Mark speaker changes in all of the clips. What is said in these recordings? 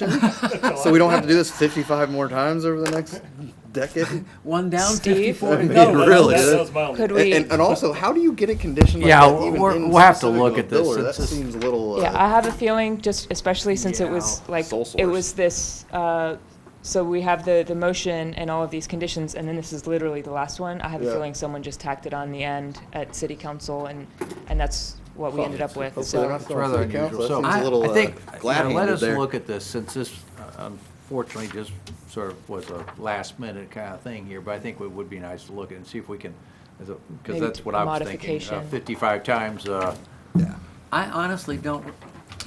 Speaker 1: So we don't have to do this fifty-five more times over the next decade?
Speaker 2: One down,
Speaker 3: Steve?
Speaker 2: fifty-four to
Speaker 1: It
Speaker 2: go.
Speaker 1: really
Speaker 4: That-
Speaker 1: is.
Speaker 4: That was my only,
Speaker 3: Could we?
Speaker 1: And, and also, how do you get a condition like
Speaker 2: Yeah,
Speaker 1: that
Speaker 2: we're-
Speaker 1: even
Speaker 2: we're-
Speaker 1: in
Speaker 2: we'll have to
Speaker 1: specific
Speaker 2: look
Speaker 1: on
Speaker 2: at this.
Speaker 1: Biller?
Speaker 2: It's
Speaker 1: That
Speaker 2: just-
Speaker 1: seems a little,
Speaker 3: Yeah, I
Speaker 1: uh,
Speaker 3: have a feeling, just especially since it was
Speaker 2: Yeah.
Speaker 3: like,
Speaker 1: Sole
Speaker 3: it
Speaker 1: source.
Speaker 3: was this, uh, so we have the, the motion and all of these conditions, and then this is literally the last one. I have a
Speaker 1: Yeah.
Speaker 3: feeling someone just tacked it on the end at city council, and, and that's what we ended up with,
Speaker 1: hopefully they're not
Speaker 3: so.
Speaker 1: still on
Speaker 2: rather
Speaker 1: city council.
Speaker 2: unusual.
Speaker 1: That
Speaker 2: I-
Speaker 1: seems a little,
Speaker 2: I
Speaker 1: uh,
Speaker 2: think, you know, Let
Speaker 1: glad-handed
Speaker 2: us
Speaker 1: there.
Speaker 2: look at this, since this uh, unfortunately just sort of was a last-minute kind of thing here, but I think it would be nice to look at and see if we can, because
Speaker 3: Maybe
Speaker 2: that's what I was thinking. uh,
Speaker 3: modification.
Speaker 2: Fifty-five times, uh,
Speaker 5: I honestly don't,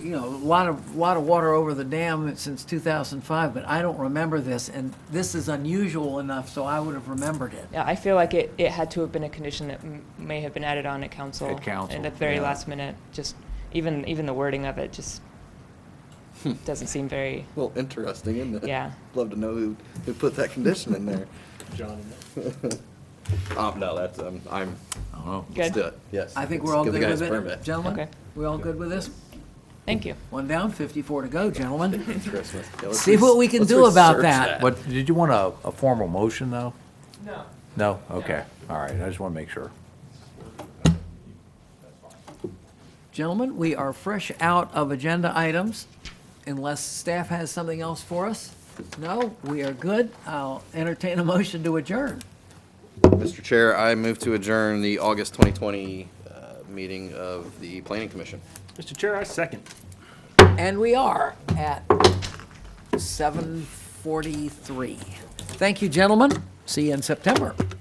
Speaker 5: you know, a lot of, lot of water over the dam since 2005, but I don't remember this, and this is unusual enough, so I would have remembered it.
Speaker 3: Yeah, I feel like it, it had to have been a condition that m- may have been added on at council.
Speaker 2: At council,
Speaker 3: And at the very
Speaker 2: yeah.
Speaker 3: last minute, just, even, even the wording of it just
Speaker 1: Hmm.
Speaker 3: doesn't seem very,
Speaker 1: Well, interesting, isn't it?
Speaker 3: Yeah.
Speaker 1: Love to know who, who put that condition in there.
Speaker 4: John,
Speaker 1: Oh, no, that's, um, I'm,
Speaker 2: I don't know.
Speaker 1: let's
Speaker 3: Good.
Speaker 1: do it, yes.
Speaker 5: I think
Speaker 1: Let's
Speaker 5: we're all
Speaker 1: give
Speaker 5: good
Speaker 1: the guys
Speaker 5: with
Speaker 1: a permit.
Speaker 5: it, gentlemen?
Speaker 3: Okay.
Speaker 5: We all good with this?
Speaker 3: thank you.
Speaker 5: One down, 54 to go, gentlemen.
Speaker 1: Christmas. Yeah, let's
Speaker 5: See what we can
Speaker 1: let's
Speaker 5: do about
Speaker 1: research
Speaker 5: that.
Speaker 2: But did you want a, a formal motion, though? No. No? Okay, all right, I just want to make sure.
Speaker 5: Gentlemen, we are fresh out of agenda items, unless staff has something else for us. No, we are good. I'll entertain a motion to adjourn.
Speaker 1: Mr. Chair, I move to adjourn the August 2020 uh, meeting of the Planning Commission.
Speaker 4: Mr. Chair, I second.
Speaker 5: And we are at 7:43. Thank you, gentlemen. See you in September.